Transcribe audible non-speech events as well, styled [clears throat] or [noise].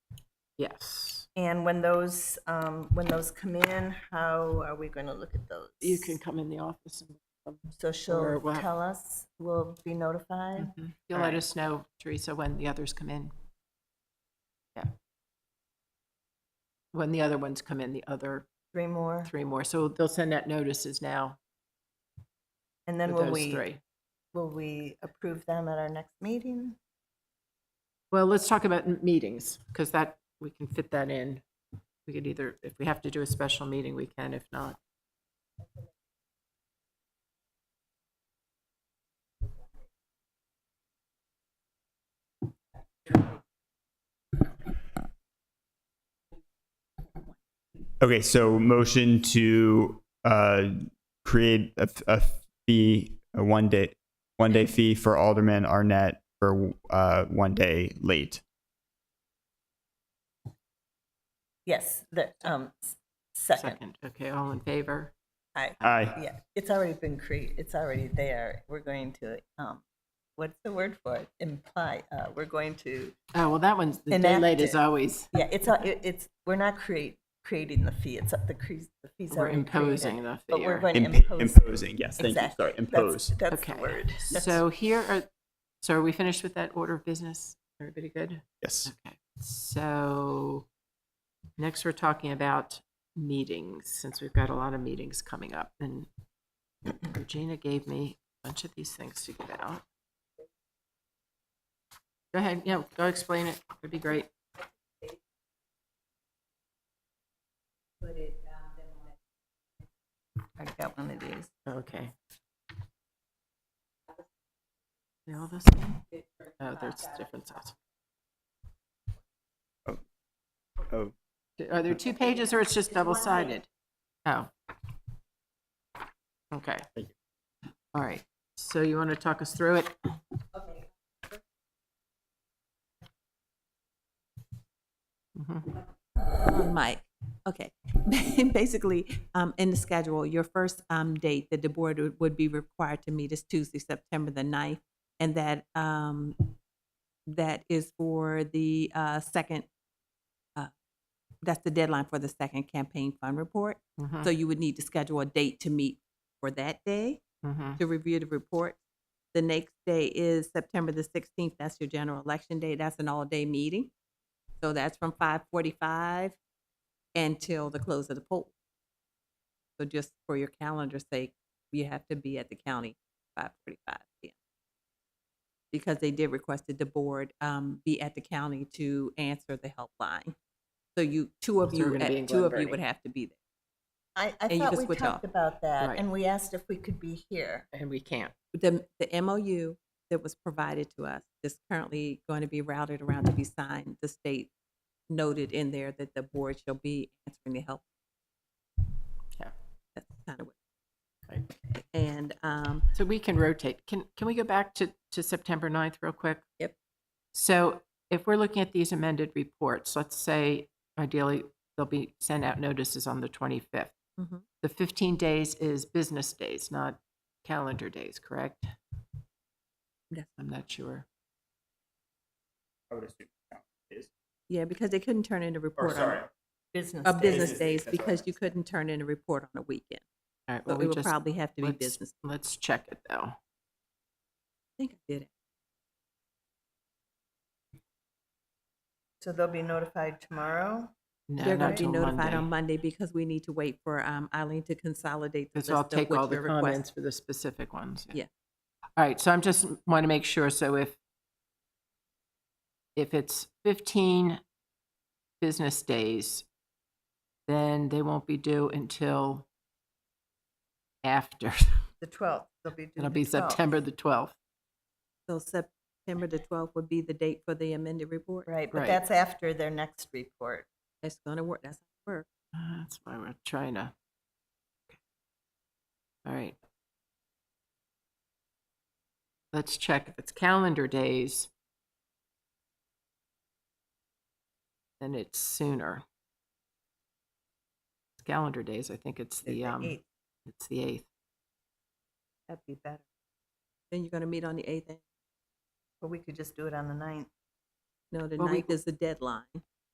Yes. And when those, um, when those come in, how are we going to look at those? You can come in the office and So or she'll we'll have- tell us, we'll be notified? Mhm. you'll All let right. us know, Teresa, when the others come in. Yeah. When the other ones come in, the other Three more? three more. So they'll send out notices now And for then will those we, three. will we approve them at our next meeting? Well, let's talk about m- meetings, because that, we can fit that in. We could either, if we have to do a special meeting, we can, if not. Okay, so motion to uh, create a, a fee, a one day, one day fee for Alderman Arnett for uh, one day late. Yes, the, um, s- second. Second, okay, all in favor? Aye. Aye. Yeah, it's already been created, it's already there. We're going to, um, what's the word for it? Imply, uh, we're going to, Oh, well, that one's, the day late is Enacted. always, yeah, it's, a- it- it's, we're not create, creating the fee, it's, the cre- the fee's we're already imposing created. the But fee. we're or- going to Imp- impose. it. imposing, yes, thank you. Exactly. Sorry, impose. That's, that's Okay. the word. That's- So here are, so are we finished with that order of business? Everybody good? Yes. Okay, so next we're talking about meetings, since we've got a lot of meetings coming up. And [clears throat] Regina gave me a bunch of these things to get out. Go ahead, yeah, go explain it. It'd be great. I got one of these. Okay. They all the same? Oh, there's different size. Oh, Are there two pages or it's just double-sided? Oh. Okay. Thank All right. So you want to talk us through it? Mhm. on mic. Okay. [laughs] Basically, um, in the schedule, your first, um, date that the board would, would be required to meet is Tuesday, September the ninth. And that, um, that is for the, uh, second, uh, that's the deadline for the second campaign fund report. Mhm. So you would need to schedule a date to meet for that day Mhm. to review the report. The next day is September the sixteenth, that's your general election day, that's an all-day meeting. So that's from five forty-five until the close of the poll. So just for your calendar's sake, you have to be at the county five forty-five PM. Because they did request that the board, um, be at the county to answer the helpline. So you, two of So we're you, gonna be at- in two of you Glenburnie. would have to be there. I, I And you thought can we switch talked off. about that Right. and we asked if we could be here. And we can't. the, the MOU that was provided to us is currently going to be routed around to be signed. The state noted in there that the board shall be answering the help. Yeah. That's kind of what, Right. and, um, So we can rotate. Can, can we go back to, to September 9th real quick? Yep. So if we're looking at these amended reports, let's say ideally they'll be sent out notices on the 25th. Mhm. The 15 days is business days, not calendar days, correct? Yes. I'm not sure. I would assume. Is. yeah, because they couldn't turn in a report on, Business. a days. business Business days days, that's because right. you couldn't turn in a report on a weekend. All right, well, So we it would just, probably have to be let's- business. let's check it though. I think I did it. So they'll be notified tomorrow? No, They're not going to be till notified on Monday, Monday because we need to wait for, um, Eileen to consolidate the Because list I'll of take all what the your requests comments for the specific ones. Yeah. All right, so I'm just want to make sure, so if, if it's 15 business days, then they won't be due until after, [laughs] The 12th, they'll be due it'll the be 12th. September the 12th. So September the twelfth would be the date for the amended report? Right, but Right. that's after their next report. That's gonna work, that's gonna work. Uh, That's why we're trying to. All right. Let's check if it's calendar days. Then it's sooner. It's calendar days, I think it's the the, um, 8th. it's the eighth. That'd be better. Then you're gonna meet on the eighth, Or we could just do it on the 9th. no, the Well, we- ninth is the deadline.